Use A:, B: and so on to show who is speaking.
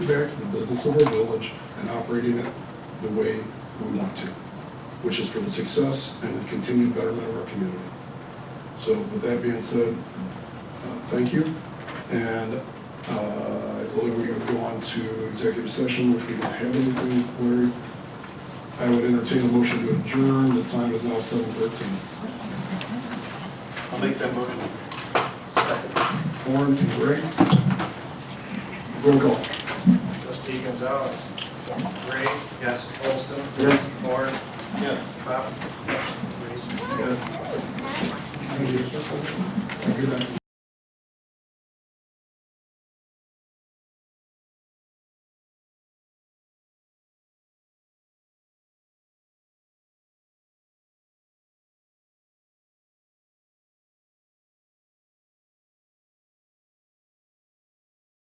A: back to the business of our village and operating it the way we want to, which is for the success and the continued betterment of our community. So with that being said, uh, thank you, and uh, I believe we're going to go on to executive session, which we don't have anything where I would entertain a motion to adjourn, the time is now seven thirteen.
B: I'll make that motion.
A: Warren and Greg. Roll call.
C: Trustee Gonzalez. Gray.
B: Yes.
C: Holston.
A: Yes.
C: Moore.
B: Yes.
C: Pop. Reese.
A: Yes. Thank you. Have a Good night.